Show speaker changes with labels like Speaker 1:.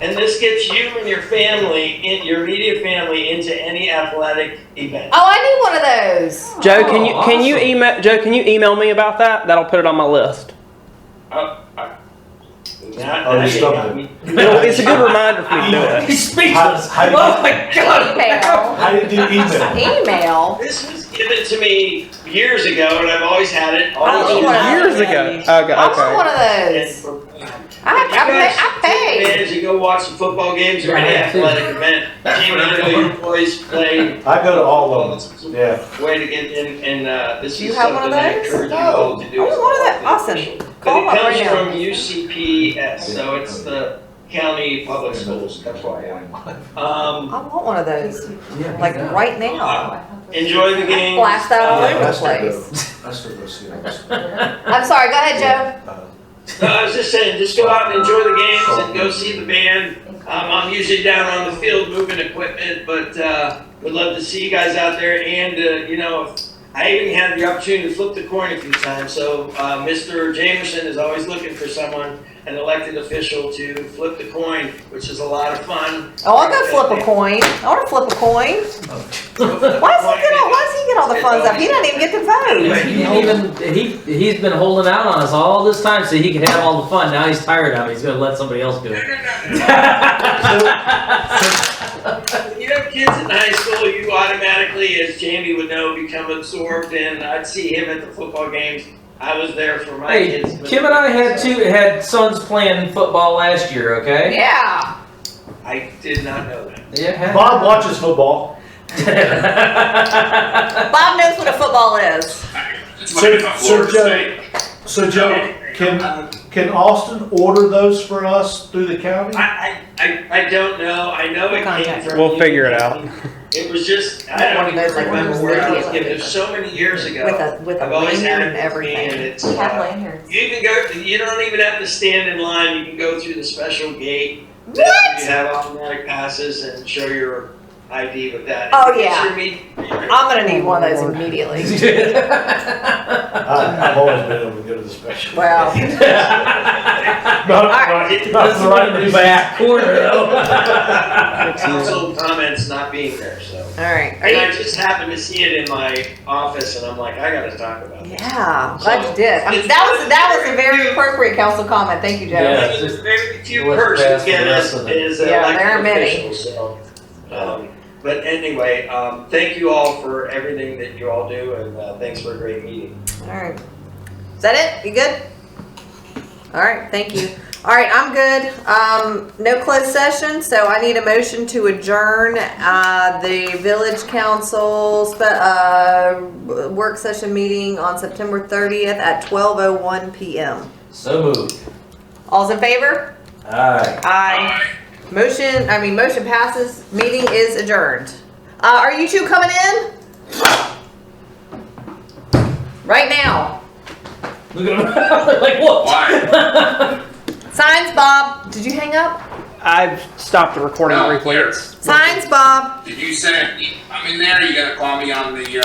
Speaker 1: And this gets you and your family, in, your immediate family, into any athletic event.
Speaker 2: Oh, I need one of those.
Speaker 3: Joe, can you
Speaker 4: Oh,
Speaker 3: can you
Speaker 5: awesome.
Speaker 3: email Joe? Can you email me about that? That'll put it on my list.
Speaker 1: Now-
Speaker 5: Oh,
Speaker 1: now
Speaker 5: you
Speaker 1: you
Speaker 5: stopped
Speaker 1: got
Speaker 5: it.
Speaker 1: me.
Speaker 3: It'll- it's a good reminder for me to do it.
Speaker 5: He's speechless. How, how, did,
Speaker 4: Oh my god!
Speaker 2: Email.
Speaker 5: how did you email?
Speaker 2: Email.
Speaker 1: This was given to me years ago, and I've always had it. all
Speaker 2: I
Speaker 1: the
Speaker 2: want
Speaker 1: time.
Speaker 3: Years ago. Okay,
Speaker 2: I want
Speaker 3: okay.
Speaker 2: one of those. I, I, pay, I pay.
Speaker 1: Manage to go watch some football games or any
Speaker 4: Yeah, too.
Speaker 1: athletic event.
Speaker 4: That's
Speaker 1: Team
Speaker 4: what I'm
Speaker 1: under
Speaker 4: doing.
Speaker 1: your employees play.
Speaker 5: I go to all of them.
Speaker 1: It's
Speaker 5: Yeah.
Speaker 1: a Way to get in, and uh, this
Speaker 6: Do you
Speaker 1: is
Speaker 6: have one
Speaker 1: something
Speaker 6: of
Speaker 1: I
Speaker 6: those?
Speaker 1: encourage you
Speaker 6: No.
Speaker 1: all to do.
Speaker 6: I want
Speaker 1: as
Speaker 6: one of
Speaker 1: well.
Speaker 6: that. Awesome.
Speaker 1: But
Speaker 6: Call
Speaker 1: it
Speaker 6: up
Speaker 1: comes
Speaker 6: right now.
Speaker 1: from UCPS, so it's the county public schools. That's why. Um,
Speaker 2: I want one of those.
Speaker 5: Yeah.
Speaker 2: Like right now.
Speaker 1: enjoy the Uh,
Speaker 2: I
Speaker 1: game.
Speaker 2: flash that all
Speaker 5: Yeah,
Speaker 2: over the
Speaker 5: that's what
Speaker 2: place.
Speaker 5: the, that's what the series.
Speaker 2: I'm sorry. Go ahead, Joe.
Speaker 5: Uh,
Speaker 1: No, I was just saying, just go out and enjoy the games and go see the band. Um, I'm usually down on the field moving equipment, but uh, would love to see you guys out there. And uh, you know, I even had the opportunity to flip the coin a few times. So uh, Mr. Jameson is always looking for someone, an elected official, to flip the coin, which is a lot of fun.
Speaker 2: Oh, I'll go flip a coin. I want to flip a coin. Why does he get all? Why does he get all the fun stuff? He doesn't even get to vote.
Speaker 4: He didn't even he he's been holding out on us all this time so he could have all the fun. Now he's tired of it. He's gonna let somebody else do it.
Speaker 1: When you have kids in high school, you automatically, as Jamie would know, become absorbed, and I'd see him at the football games. I was there for my
Speaker 4: hey,
Speaker 1: kids. but-
Speaker 4: Kim and I had two had sons playing football last year. Okay.
Speaker 2: Yeah.
Speaker 1: I did not know that.
Speaker 4: Yeah.
Speaker 5: Bob watches football.
Speaker 2: Bob knows what a football is.
Speaker 5: So, so Joe, so Joe, can can Austin order those for us through the county?
Speaker 1: I, I, I, I don't know. I know it came
Speaker 2: Contact.
Speaker 1: from.
Speaker 3: We'll
Speaker 1: you.
Speaker 3: figure it out.
Speaker 1: It was just, I don't
Speaker 2: One of those,
Speaker 1: even
Speaker 2: like,
Speaker 1: remember
Speaker 2: ones
Speaker 1: where I
Speaker 2: that
Speaker 1: was
Speaker 2: you-
Speaker 1: given. It was so many years ago.
Speaker 2: With a with a
Speaker 1: I've always
Speaker 2: lanyard
Speaker 1: had
Speaker 2: and
Speaker 1: it with me, and
Speaker 2: everything.
Speaker 1: it's, uh,
Speaker 6: lanyards.
Speaker 1: you can go, you don't even have to stand in line. You can go through the special gate. You
Speaker 2: What?
Speaker 1: have automatic passes and show your ID with that.
Speaker 2: Oh,
Speaker 1: If you
Speaker 2: yeah.
Speaker 1: picture me-
Speaker 2: I'm gonna need one of those immediately.
Speaker 5: I, I've always been able to go to the special.
Speaker 2: Well,
Speaker 5: Not, not, not the right reason.
Speaker 4: back corner though.
Speaker 1: Council comments not being there, so.
Speaker 2: all right. Are
Speaker 1: And I
Speaker 2: you?
Speaker 1: just happened to see it in my office and I'm like, I gotta talk about it.
Speaker 2: Yeah. Glad you did. I mean, that was that was a very appropriate council comment. Thank you, Joe.
Speaker 4: Yeah.
Speaker 1: One of the very few
Speaker 4: What's
Speaker 1: perks
Speaker 4: best
Speaker 1: you get
Speaker 4: for us
Speaker 1: is,
Speaker 4: and the-
Speaker 1: is
Speaker 2: Yeah, there are
Speaker 1: elected
Speaker 2: many.
Speaker 1: officials, so. um, But anyway, um, thank you all for everything that you all do and, uh, thanks for a great meeting.
Speaker 2: All right. Is that it? You good? All right, thank you. All right, I'm good. Um, no closed session, so I need a motion to adjourn, uh, the village council, spe- uh, work session meeting on September thirtieth at twelve oh one PM.
Speaker 4: so moved.
Speaker 2: All's in favor?
Speaker 4: All right.
Speaker 2: Aye. Motion, I mean, motion passes, meeting is adjourned. Uh, are you two coming in? Right now.
Speaker 4: Look at him. like what?
Speaker 2: Signs, Bob. Did you hang up?
Speaker 3: I've stopped the recording
Speaker 7: No,
Speaker 3: briefly.
Speaker 7: here.
Speaker 3: It's-
Speaker 2: Signs, Bob.
Speaker 7: Did you send, I'm in there, you gotta call me on the, uh,